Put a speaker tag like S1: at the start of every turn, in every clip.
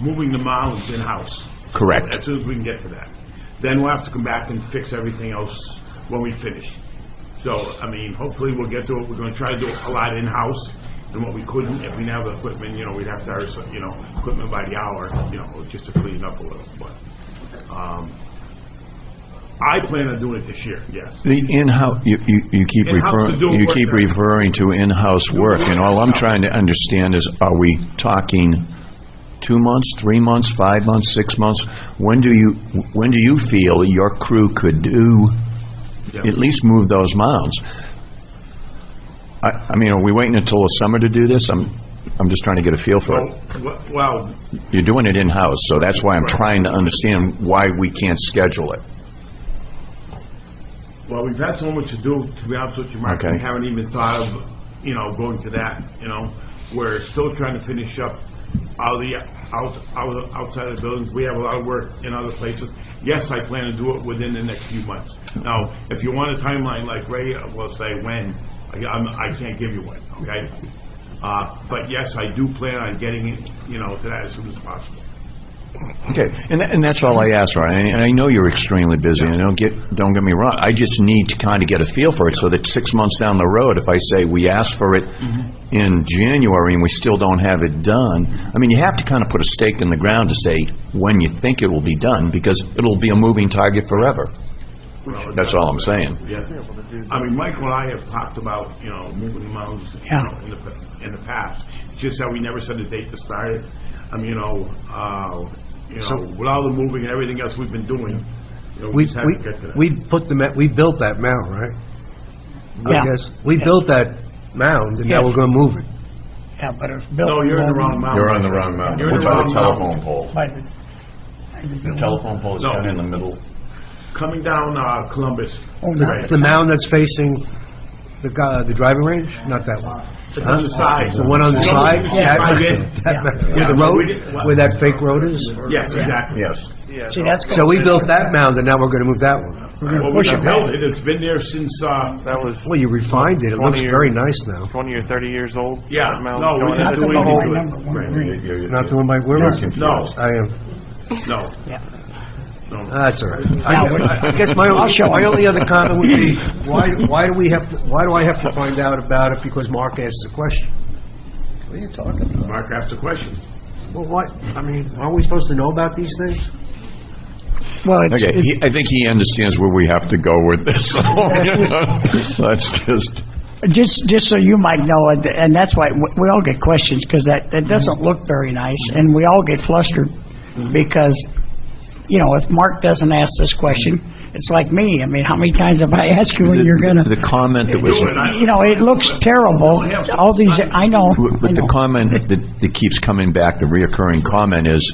S1: moving the mileage in-house.
S2: Correct.
S1: As soon as we can get to that. Then we'll have to come back and fix everything else when we finish. So, I mean, hopefully we'll get to it, we're gonna try to do a lot in-house, and what we couldn't, if we didn't have the equipment, you know, we'd have to hire, some, you know, equipment by the hour, you know, just to clean it up a little, but, um, I plan on doing it this year, yes.
S2: The in-house, you, you you keep
S1: In-house to
S2: referring,
S1: do
S2: you
S1: work
S2: keep
S1: there.
S2: referring to in-house work, and all I'm trying to understand is, are we talking two months, three months, five months, six months? When do you, when do you feel your crew could do,
S1: Yeah.
S2: at least move those mounds? I, I mean, are we waiting until the summer to do this? I'm, I'm just trying to get a feel for it.
S1: Well, well,
S2: You're doing it in-house, so that's why I'm trying to understand why we can't schedule it.
S1: Well, we've had so much to do, to be honest with you, Mark, we
S2: Okay.
S1: haven't even thought of, you know, going to that, you know? We're still trying to finish up all the out, out, outside of the buildings, we have a lot of work in other places. Yes, I plan to do it within the next few months. Now, if you want a timeline like Ray uh, will say when, I, I'm, I can't give you one, okay? Uh, but yes, I do plan on getting it, you know, to that as soon as possible.
S2: Okay, and, tha- and that's all I asked for, and and I know you're extremely busy, and don't get, don't get me wrong, I just need to kind of get a feel for it, so that six months down the road, if I say, we asked for it in January and we still don't have it done, I mean, you have to kind of put a stake in the ground to say when you think it will be done, because it'll be a moving target forever.
S1: Well,
S2: That's all I'm saying.
S1: Yeah. I mean, Michael and I have talked about, you know, moving the mounds, you know, in the, in the past. It's Just that we never set a date to start it. I mean, you know, uh, you know, with all the moving and everything else we've been doing, you know, we
S3: We,
S1: just have
S3: we,
S1: to get to that.
S3: we put the, ma- we built that mound, right?
S4: Yeah.
S3: I guess, we built that mound, and now we're gonna move it.
S4: Yeah, but it's built.
S1: No, you're in the wrong mound.
S2: wrong mountain.
S1: You're in the wrong mountain.
S2: pole.
S4: By the, by the building.
S2: Telephone pole is
S1: No.
S2: down in the middle.
S1: Coming down, uh, Columbus.
S4: Oh, no.
S1: Right.
S3: It's the mound that's facing the, gu- the driving range, not that one.
S1: It's on the side.
S3: The one on the
S1: You know,
S3: side?
S1: yeah,
S3: That-
S1: drive in.
S3: that- Where the
S1: Yeah. We didn't-
S3: road, where that fake road is?
S1: Yes, exactly.
S2: Yes.
S4: See, that's.
S3: So we built that mound, and now we're gonna move that one.
S4: We're gonna
S1: Well, we
S4: push it
S1: should
S4: back.
S1: build it. It's been there since, uh,
S5: That was
S3: Well, you refined it, it looks
S5: 20
S3: very nice now.
S5: 20 or 30 years old?
S1: Yeah,
S5: that mound
S1: no, we
S5: going
S1: didn't
S5: up?
S4: That's
S1: do
S4: the whole
S1: anything with it.
S4: number, one green.
S3: Not the one by, where was it?
S1: no,
S3: I am,
S1: no,
S4: Yeah. Uh,
S1: no.
S3: that's all right.
S4: Now we're-
S3: I I guess my,
S4: I'll show
S3: only- my
S4: him.
S3: only other comment would be, why, why do we have, to? why do I have to find out about it because Mark asked the question? What are you talking about?
S1: Mark asked a question.
S3: Well, what, I mean, aren't we supposed to know about these things?
S4: Well, it's,
S2: Okay,
S4: it's-
S2: he- I think he understands where we have to go with this. so, you know, Let's just,
S4: just, just so you might know, and- and that's why we we all get questions, because that, that doesn't look very nice, and we all get flustered, because, you know, if Mark doesn't ask this question, it's like me, I mean, how many times have I asked you when you're gonna,
S2: the comment that was...
S4: you know, it looks terrible, all these, I know, I
S2: But the
S4: know.
S2: comment that that keeps coming back, the reoccurring comment is,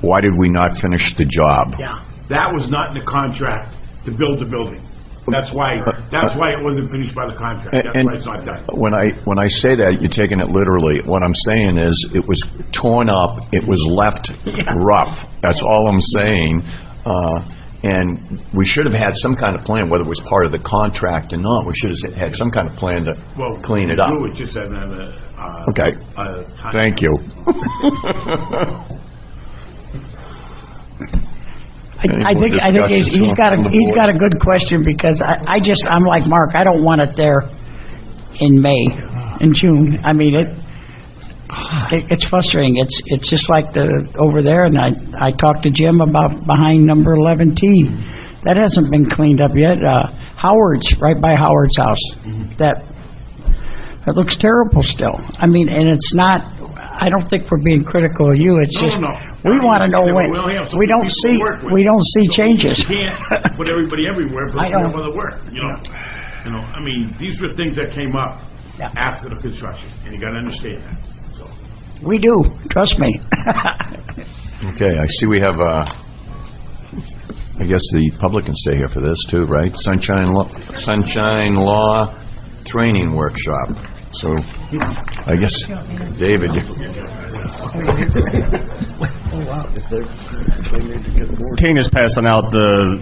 S2: why did we not finish the job?
S4: Yeah.
S1: That was not in the contract to build the building. That's why, that's why it wasn't finished by the contract. That's
S2: Uh, And-
S1: why it's not done.
S2: When I, when I say that, you're taking it literally. What I'm saying is, it was torn up, it was left rough. That's all I'm saying. Uh, And we should have had some kind of plan, whether it was part of the contract or not, we should have had some kind of plan to
S1: Well,
S2: clean it
S1: we
S2: up.
S1: do it just at another, uh,
S2: Okay.
S1: uh, time.
S2: Thank you.
S4: I I
S2: Any more
S4: think, I think he's,
S2: discussion
S4: he's got
S2: from
S4: a,
S2: the
S4: he's got
S2: board?
S4: a good question, because I, I just, I'm like Mark, I don't want it there in May, in June. I mean, it, it- it's frustrating, it's, it's just like the, over there, and I, I talked to Jim about behind number 11T. That hasn't been cleaned up yet. Uh, Howard's, right by Howard's
S1: Mm-hmm.
S4: house, that, that looks terrible still. I mean, and it's not, I don't think we're being critical of you, it's
S1: No,
S4: just,
S1: no.
S4: we want to know when.
S1: We only have so
S4: We
S1: many
S4: don't
S1: people to
S4: see,
S1: work with.
S4: we don't see changes.
S1: You can't put everybody everywhere, but
S4: I
S1: we have
S4: know.
S1: other work, you know? You know, I mean, these were things that came up
S4: Yeah.
S1: after the construction, and you gotta understand that, so.
S4: We do, trust me.
S2: Okay, I see we have, uh, I guess the public can stay here for this too, right? Sunshine Law, Sunshine Law Training Workshop. So, I guess, David, you-
S6: Tana's passing out the,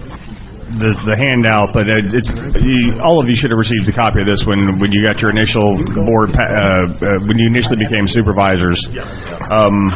S6: the the handout, but it- it's, you- all of you should have received a copy of this when, when you got your initial board, pa- uh, uh, when you initially became supervisors. Um,